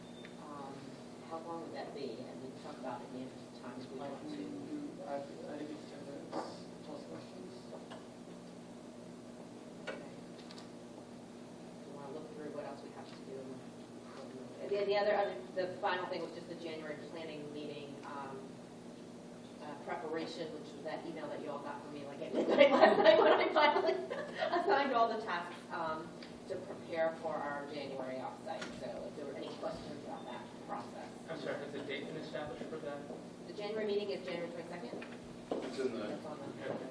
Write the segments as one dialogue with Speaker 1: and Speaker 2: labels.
Speaker 1: Um, that be, and we can talk about it the other time if we
Speaker 2: Like,
Speaker 1: want
Speaker 2: we
Speaker 1: to.
Speaker 2: do, I, I think it's ten minutes, plus questions.
Speaker 1: Do you want to look through what else we have to do? and what we- And then the other, other- the final thing was just the January planning meeting um, uh, preparation, which was that email that you all got from me like at midnight last night when I finally assigned all the tasks um, to prepare for our January offsite. So if there were any questions about that process.
Speaker 2: I'm sorry, has a date been established for that?
Speaker 1: The January meeting is January 22nd.
Speaker 3: It's in the
Speaker 1: That's on the calendar.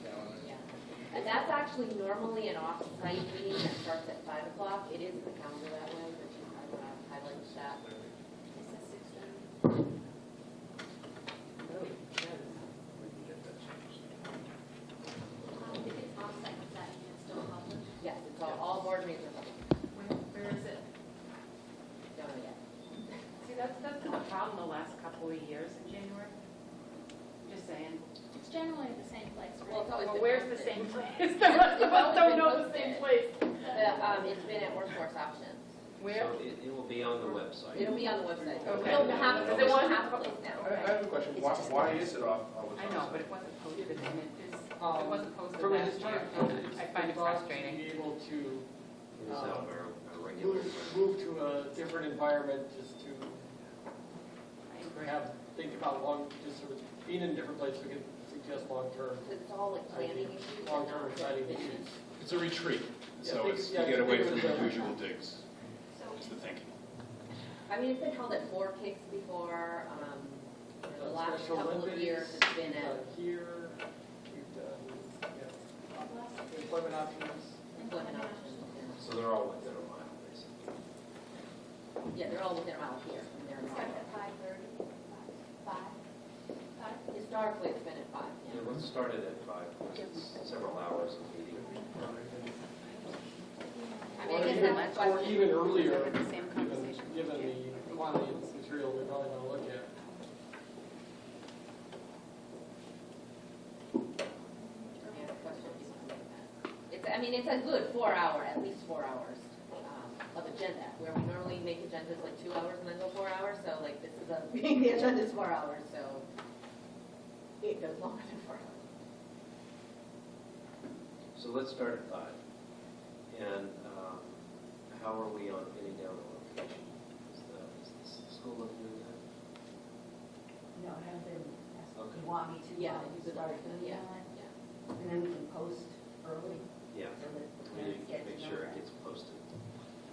Speaker 3: calendar.
Speaker 1: Yeah, And that's actually normally an off-site meeting that starts at five o'clock. It is in the calendar that way, but you might want to highlight that. No, it does.
Speaker 3: We can get that changed.
Speaker 4: Um, if it's offsite, is that email still public?
Speaker 1: Yes, it's all, all board meetings are public.
Speaker 5: Where- Where is it?
Speaker 1: Don't know yet.
Speaker 5: See, that's, that's been a problem the last couple of years in January. Just saying.
Speaker 4: It's generally the same place,
Speaker 1: Well, it's
Speaker 4: right?
Speaker 1: always
Speaker 5: Well,
Speaker 1: been.
Speaker 5: where's the
Speaker 1: posted.
Speaker 5: same place? The rest of us don't know the same place.
Speaker 1: The, um, it's been at workforce options.
Speaker 5: Where?
Speaker 6: So it, it will be on the website.
Speaker 1: It'll be on the website. We
Speaker 5: Okay.
Speaker 1: don't have, it.
Speaker 5: Because it
Speaker 1: we don't
Speaker 5: wasn't-
Speaker 1: have a place
Speaker 3: I
Speaker 1: now.
Speaker 3: I have a question,
Speaker 1: It's
Speaker 3: why,
Speaker 1: just-
Speaker 3: why is it off? all the
Speaker 5: I know,
Speaker 3: time?
Speaker 5: but it wasn't posted, and it is, it
Speaker 2: Um,
Speaker 5: wasn't posted
Speaker 2: From a
Speaker 5: last year.
Speaker 2: historic point of view,
Speaker 5: I find it
Speaker 2: we'd love
Speaker 5: frustrating.
Speaker 2: To be able to
Speaker 6: It's
Speaker 7: Oh.
Speaker 6: not our, our regular.
Speaker 2: move, move to a different environment, just to
Speaker 5: I agree.
Speaker 2: have, think about long, just sort of being in a different place, we can suggest long-term,
Speaker 1: Because it's all like planning issues. and
Speaker 2: long-term
Speaker 1: not
Speaker 2: exciting
Speaker 1: business.
Speaker 2: issues.
Speaker 8: It's a retreat,
Speaker 2: Yeah,
Speaker 8: so
Speaker 2: think-
Speaker 8: it's, you
Speaker 2: yeah,
Speaker 8: get away
Speaker 2: think
Speaker 8: from
Speaker 2: of
Speaker 8: the
Speaker 2: the-
Speaker 8: usual digs,
Speaker 4: So
Speaker 8: is the thinking.
Speaker 1: I mean, it's been held at four kicks before, um, for the last
Speaker 2: Special
Speaker 1: couple of
Speaker 2: Olympics,
Speaker 1: years, it's been
Speaker 2: we've
Speaker 1: at
Speaker 2: done Here, we've done, yeah, employment options.
Speaker 1: employment options. and-
Speaker 6: So they're all within a mile, basically.
Speaker 1: Yeah, they're all within a mile here, and they're
Speaker 4: it
Speaker 1: not.
Speaker 4: starts at five thirty, five, five,
Speaker 1: Historically, it's been at five,
Speaker 6: Yeah,
Speaker 1: yeah.
Speaker 6: let's start it at five, because it's several hours of meeting.
Speaker 1: I mean,
Speaker 2: Or
Speaker 1: I guess
Speaker 2: even,
Speaker 1: that's my
Speaker 2: or
Speaker 1: question.
Speaker 2: even earlier,
Speaker 5: Having the same
Speaker 2: given,
Speaker 5: conversation.
Speaker 2: given the quantity of material we're probably gonna look at.
Speaker 1: Yeah, the question is something like that. It's, I mean, it's a good four hour, at least four hours um, of agenda, where we normally make agendas like two hours and then go four hours, so like this is a, meeting, the agenda is four hours, so it goes longer than four hours.
Speaker 6: So let's start at five. And um, how are we on getting down the location? Is the, is the school looking at that?
Speaker 7: No, I haven't been asked.
Speaker 6: Okay.
Speaker 7: You want me to?
Speaker 1: Yeah,
Speaker 7: um,
Speaker 1: you could,
Speaker 7: start doing
Speaker 1: yeah,
Speaker 7: that?
Speaker 1: yeah.
Speaker 7: And then we can post early.
Speaker 6: Yeah,
Speaker 7: so that
Speaker 6: we
Speaker 7: parents
Speaker 6: need
Speaker 7: get
Speaker 6: to
Speaker 7: to
Speaker 6: make
Speaker 7: know
Speaker 6: sure
Speaker 7: that.
Speaker 6: it gets posted.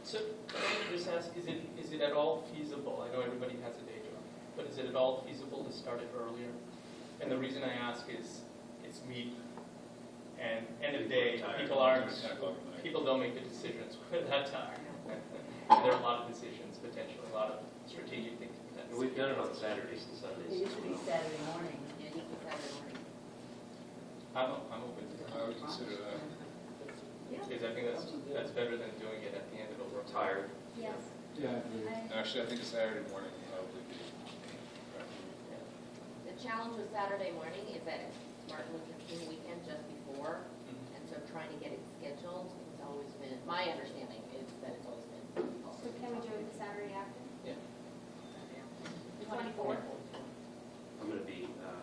Speaker 9: So, let me just ask, is it, is it at all feasible, I know everybody has a day job, but is it at all feasible to start it earlier? And the reason I ask is, it's meat, and end of the day,
Speaker 8: Tired.
Speaker 9: people aren't,
Speaker 8: Ten o'clock at night.
Speaker 9: people don't make the decisions when they're tired. And there are a lot of decisions, potentially, a lot of strategic thinking.
Speaker 6: And we've done it on Saturdays and Sundays.
Speaker 7: It used to be Saturday morning.
Speaker 1: Yeah, you could have it morning.
Speaker 9: I'm, I'm open to
Speaker 8: I would consider that,
Speaker 9: that, because I think that's, that's better than doing it at the end of a work.
Speaker 6: Tired.
Speaker 4: yes. Yeah.
Speaker 3: Actually, I think a Saturday morning would probably be.
Speaker 1: The challenge with Saturday morning is that it's Martin Luther King weekend just before, and so trying to get it scheduled, it's always been, my understanding is that it's always been.
Speaker 4: So can we do it the Saturday after?
Speaker 1: The twenty-fourth.
Speaker 6: I'm going to be, uh,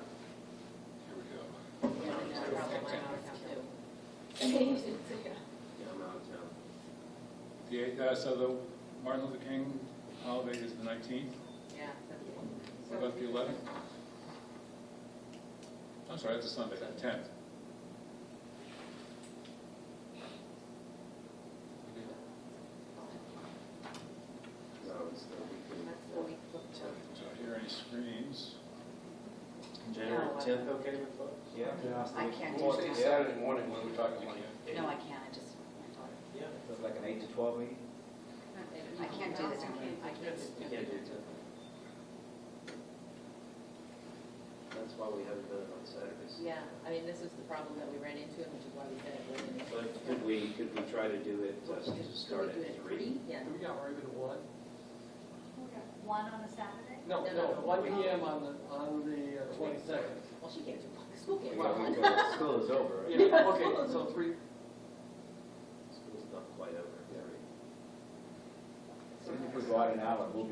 Speaker 3: Here we go.
Speaker 1: Yeah, that's probably my hours out too.
Speaker 6: yeah, I'm out of town.
Speaker 3: The eighth, uh, so the Martin Luther King holiday is the nineteenth,
Speaker 1: Yeah.
Speaker 3: what about the eleventh? I'm sorry, that's a Sunday, the tenth.
Speaker 6: No, it's the weekend.
Speaker 1: That's the week
Speaker 3: So I hear any screams.
Speaker 6: January
Speaker 1: No, I-
Speaker 6: tenth, okay with folks? Yeah.
Speaker 7: I can't
Speaker 3: Well, I think Saturday morning, when we're talking like.
Speaker 7: No, I can't, I just, my daughter.
Speaker 6: Yeah, it's like an eight to twelve meeting?
Speaker 7: I can't do this.
Speaker 1: I can't do
Speaker 6: You
Speaker 1: it.
Speaker 6: can't do ten. That's why we haven't done it on Saturdays.
Speaker 1: Yeah, I mean, this is the problem that we ran into, and which is why we said it wasn't.
Speaker 6: But could we, could we try to do it, uh,
Speaker 1: Could we
Speaker 6: to start
Speaker 1: do it
Speaker 6: at three?
Speaker 1: Yeah.
Speaker 2: Do we got, or even one?
Speaker 4: One on a Saturday?
Speaker 2: No,
Speaker 1: No,
Speaker 2: no,
Speaker 1: no,
Speaker 2: one
Speaker 1: no.
Speaker 2: PM on the, on the uh, twenty-second.
Speaker 1: Well, she can't do one, the school can't do
Speaker 2: Well,
Speaker 1: one.
Speaker 6: Well, School is over, right?
Speaker 2: Yeah, okay, so three,
Speaker 6: School's not quite over,
Speaker 1: So
Speaker 6: right?
Speaker 1: we're-
Speaker 6: go out an hour, we'll be